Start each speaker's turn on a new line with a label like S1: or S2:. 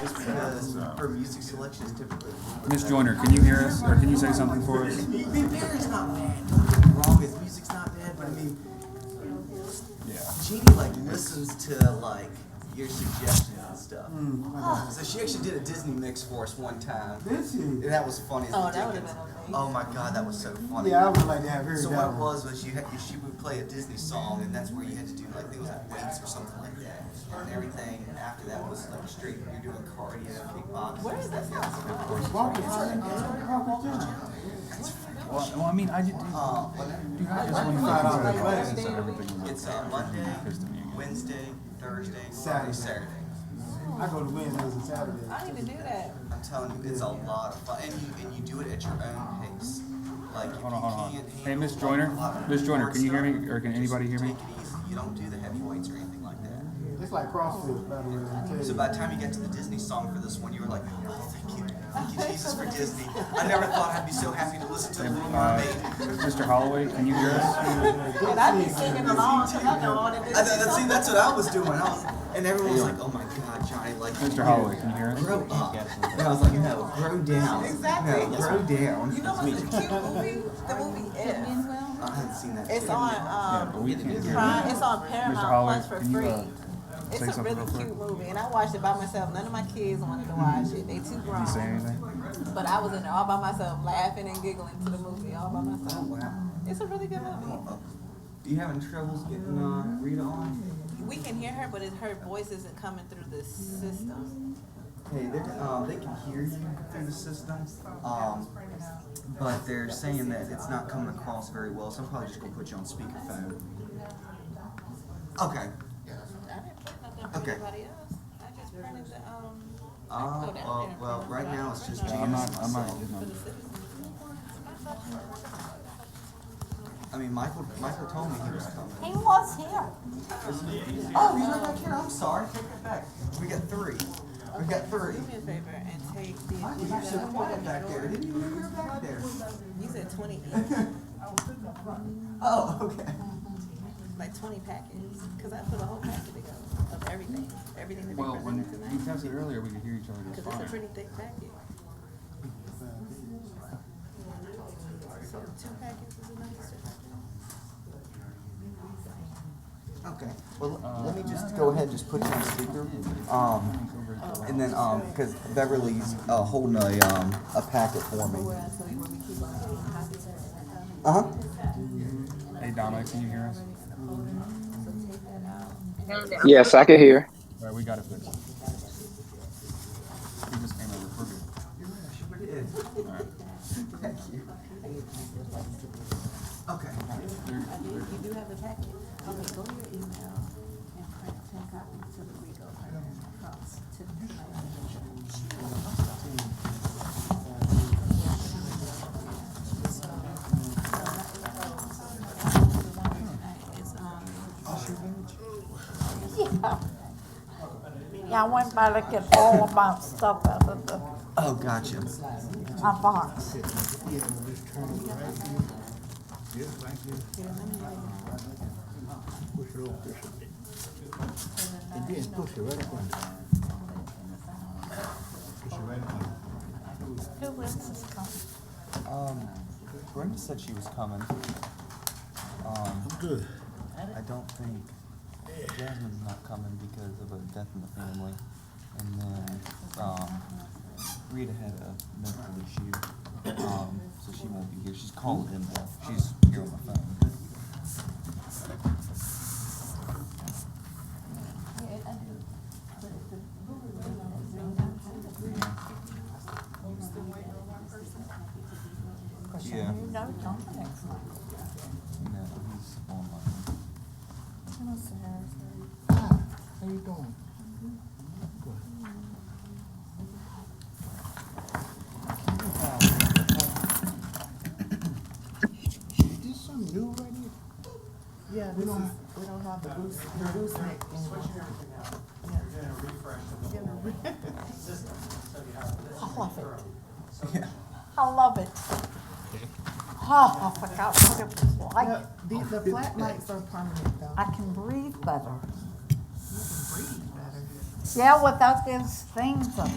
S1: just because
S2: um,
S1: her music selection is typically.
S3: Miss Joyner, can you hear us, or can you say something for us?
S1: I mean, Barry's not bad, don't get me wrong, his music's not bad, but I mean,
S3: Yeah.
S1: Jeannie like listens to like your suggestions and stuff.
S2: Hmm.
S1: So she actually did a Disney mix for us one time.
S2: Did she?
S1: And that was funny as
S4: Oh, that
S1: dickens.
S4: would've been okay.
S1: Oh my god, that was so funny.
S2: Yeah, I would like to have heard
S1: So
S2: that
S1: what it
S2: one.
S1: was was you had, she would play a Disney song, and that's where you had to do like I think it was like weights or something like that, and everything. And after that was like straight, you're doing cardio, kickboxing. Where is that?
S2: Walk it, Walk it, walk it, yeah.
S3: Well, well, I mean, I just,
S1: Uh, whatever.
S3: dude, I just want to
S2: Five
S3: find
S2: hours
S3: out
S2: away.
S3: so everything was
S1: It's uh, Monday, Wednesday, Thursday, Friday,
S2: Saturday.
S1: Saturday.
S2: I go to Wednesdays and Saturdays.
S4: I need to do that.
S1: I'm telling you, it's a lot of fun, and you, and you do it at your own pace. Like if
S3: Hold on,
S1: you
S3: hold on.
S1: can't
S3: Hey,
S1: handle,
S3: Miss
S1: like,
S3: Joyner?
S1: a lot of
S3: Miss Joyner,
S1: hard
S3: can you hear
S1: stuff,
S3: me, or can anybody
S1: just
S3: hear me?
S1: Take it easy. You don't do the heavy weights or anything like that.
S2: It's like CrossFit, by the way. I tell you.
S1: So by the time you get to the Disney song for this one, you were like, oh, thank you, thank you Jesus for Disney. I never thought I'd be so happy to listen to The Little Mermaid.
S3: Mr. uh, Holloway, can you hear us?
S4: And I be singing along, cause I know all the
S1: I,
S4: Disney
S1: that,
S4: songs.
S1: see, that's what I was doing. I was, and everyone was like, oh my God, Johnny, like,
S3: Mr. Holloway, can you hear us?
S1: grow up. And I was like, no, grow down.
S4: Exactly.
S1: No, grow down.
S4: You know what's a cute movie? The movie If.
S1: I haven't seen that. yet.
S4: It's
S3: Yeah,
S4: on,
S3: but
S4: um,
S3: we can't hear
S4: Prime,
S3: you.
S4: it's on
S3: Mr.
S4: Paramount
S3: Holloway,
S4: Plus for
S3: can you,
S4: free.
S3: uh,
S4: It's
S3: say
S4: a
S3: something
S4: really
S3: real quick?
S4: cute movie, and I watched it by myself. None of my kids wanted to watch it. They too
S3: Did you say
S4: grown.
S3: anything?
S4: But I was in there all by myself, laughing and giggling to the movie all by myself.
S1: Wow.
S4: It's a really good movie.
S1: Uh, You having troubles getting uh, Rita on?
S4: We can hear her, but it's, her voice isn't coming through the system.
S1: Hey, they um, they can hear you through the system, um, but they're saying that it's not coming across very well, so I'm probably just gonna put you on speakerphone. Okay.
S4: I didn't print nothing for
S1: Okay.
S4: anybody else. I just printed the, um,
S1: Uh, well, well, right now it's just
S3: I'm
S1: Janice
S3: not,
S1: and
S3: I'm not,
S1: myself.
S3: it's not.
S4: for the citizens.
S1: I mean, Michael, Michael told me he was coming.
S5: He was here.
S1: Oh, he's not back here, I'm sorry, take it back. We got three. We got three.
S4: Do me a favor and take the.
S1: Michael, you're so quiet back there, didn't even know you were back there.
S4: You said twenty-eight,
S1: Oh, okay.
S4: like twenty packets, cause I put a whole packet together of everything, everything that
S3: Well,
S4: they
S3: when
S4: presented
S3: you
S4: tonight.
S3: tested earlier, we could hear each other just
S4: Cause it's a
S3: fine.
S4: pretty thick packet. So two packets is enough,
S1: Okay, well, l- let me just go ahead and just put you on speaker, um, and then, um, cause Beverly's, uh, holding a, um, a packet for me. Uh-huh,
S3: Hey, Dominic, can you hear us?
S6: Yes, I can hear.
S3: All right, we got it fixed. He just came over, we're good. All right.
S1: thank you. Okay,
S4: You do have the packet.
S5: go to your email and print ten copies to the Rico Iron Cross to the Yeah. Yeah, I went by looking all of my stuff out of the,
S1: oh, gotcha,
S5: my box. Who else is coming?
S1: um, Brenda said she was coming. Um,
S7: Good.
S1: I don't think Jasmine's not coming because of a death in the family, and then, um, Rita had a mental issue, um, so she won't be here, she's calling in though, she's here on the phone. Yeah,
S5: You know Dominic's not.
S1: no, he's online.
S7: How you doing? Is this something new right here?
S2: Yeah, we don't, we don't have the goose, the goose neck. Switching everything out. You're gonna refresh the
S5: I love it.
S1: Yeah.
S5: I love it. Oh, I forgot what it was like.
S2: The, the flat lights are permanent though.
S5: I can breathe better. Yeah, without those things. up